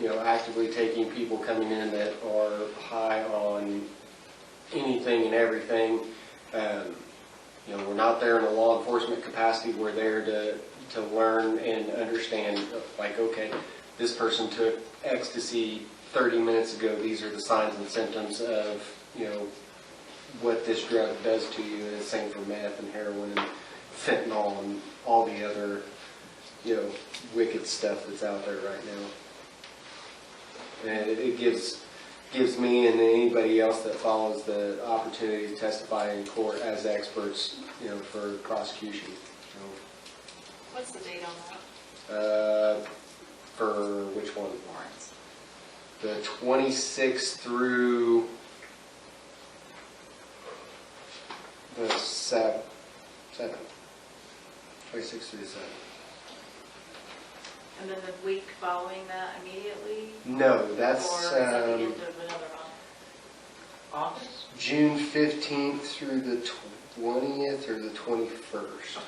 you know, actively taking people coming in that are high on anything and everything. Um, You know, we're not there in a law enforcement capacity, we're there to, to learn and understand, like, okay, this person took ecstasy 30 minutes ago, these are the signs and symptoms of, you know, what this drug does to you, and the same for meth and heroin and fentanyl and all the other, you know, wicked stuff that's out there right now. And it- it gives, gives me and anybody else that follows the opportunity to testify in court as experts, you know, for prosecution. you What's the date on know. Uh, For which one? that warrants? The 26th through the 7th. 7th. 26th through the 7th. And then the week following that immediately? No, Or that's is that the um, end of another month? August? June 15th through the 20th or the 21st.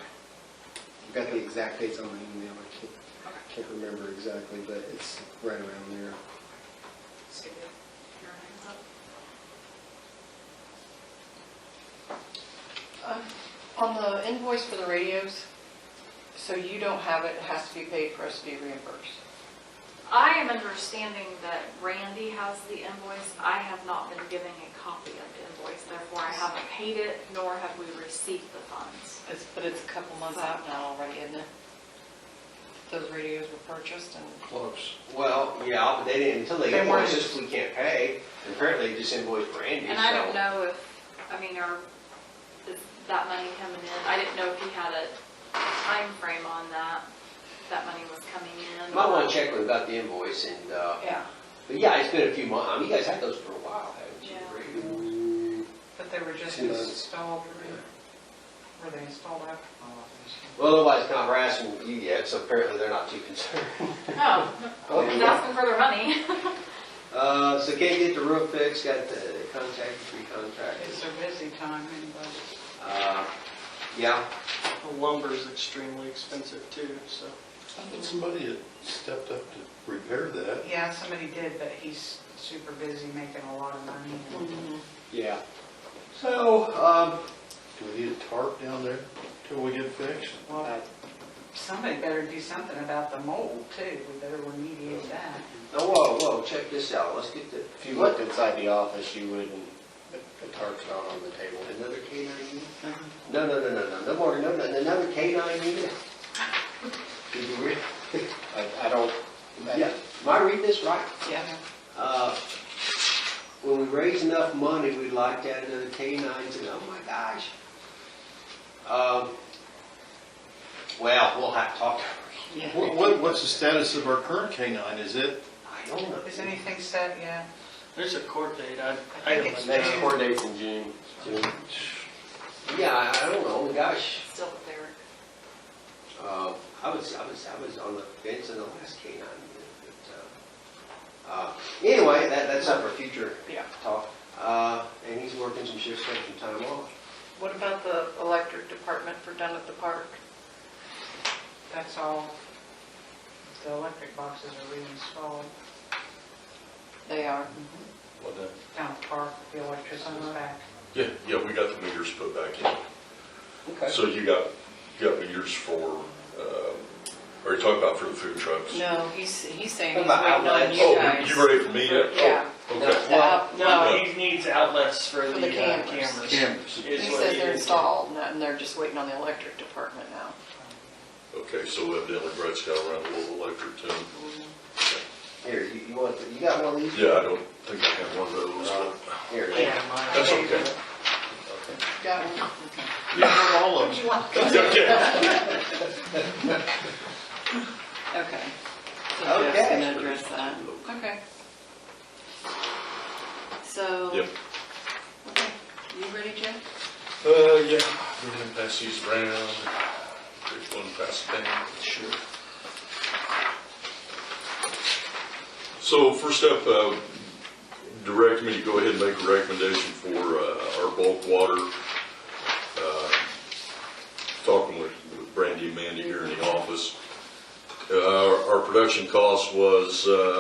I've got the exact dates on my email. I can't, I can't remember exactly, but it's right around there. Let's give it your hands up. Uh, On the invoice for the radios, so you don't have it, it has to be paid for us to be reimbursed. I am understanding that Randy has the invoice. I have not been given a copy of the invoice, therefore I haven't paid it, nor have we received the funds. It's, but it's a couple months out now already, isn't it? Those radios were purchased and. Close. Well, yeah, but they didn't, until they They weren't. invoice us, we can't pay. And Apparently, they just invoiced Randy, so. And I don't know if, I mean, are, is that money coming in? I didn't know if he had a time frame on that, if that money was coming in. Might want to check with about the invoice and, uh, Yeah, but yeah, it's been a few months. I mean, you guys had those for a while, haven't you? Yeah. Mm, Randy? but they were just Two months. installed, were they installed after? Well, nobody's not harassing you yet, so apparently they're not too concerned. No, he's asking for their money. Uh, so can't get the roof fixed, got the contact, free contract. It's a busy time in Uh, yeah, budget. Lumber's extremely expensive too, so. Somebody had stepped up to repair that. Yeah, somebody did, but he's super busy making a lot of money. Mm-hmm. Yeah. so, um, Do we need a tarp down there till we get fixed? Uh, Well, somebody better do something about the mold too. We better remediate that. oh, whoa, whoa, check this out. Let's get the, If you looked inside the office, you wouldn't, the tarp's not on the table. another canine unit? No, no, no, no, no, no more, no, no, another canine unit? Did you read? I, I don't, Yeah, am I reading this right? Yeah. Uh, When we raise enough money, we'd like to add another canines, and oh my gosh. Um, Well, we'll have to talk to her. What, what- what's the status of our current canine? Is it, I don't know. Is anything set yet? There's a court date, I, I I think haven't it's next done. court date's in June. Yeah, I- I don't know, Oh, gosh. Still there. Uh, I was, I was, I was on the fence on the last canine. but, uh, uh, Anyway, that, that's up for future Yeah. talk. Uh, And he's working some shifts, taking some time off. What about the electric department for down at the park? That's all. The electric boxes are reinstalled They are. What the- down at the park, the electricity's Uh-huh. back. Yeah, yeah, we got the meters put back in. Okay. So you got, you got meters for, um, are you talking about for the food trucks? No, he's, he's saying he's About waiting on outlets. you Oh, guys. you ready for me yet? Yeah. Uh, Oh, Okay. The out- No, he needs outlets for For the the uh, cameras. cameras. cameras? is He what says he they're is. installed and that- and they're just waiting on the electric department now. Okay, so evidently Brett's got around a little electric too. Here, you, you want, you got one of these? Yeah, I don't think I have one of those, but Here. that's okay. Got one? Yeah, not all of them. It's okay. Okay. So Jeff's Okay. gonna address that. Okay. So. Yep. Okay, you ready, Jeff? Uh, yeah, we're gonna pass these around, there's one passed down. Sure. So first up, uh, direct me to go ahead and make a recommendation for, uh, our bulk water. Uh, Talking with with Brandy and Mandy here in the office. Uh, our- our production cost was, uh,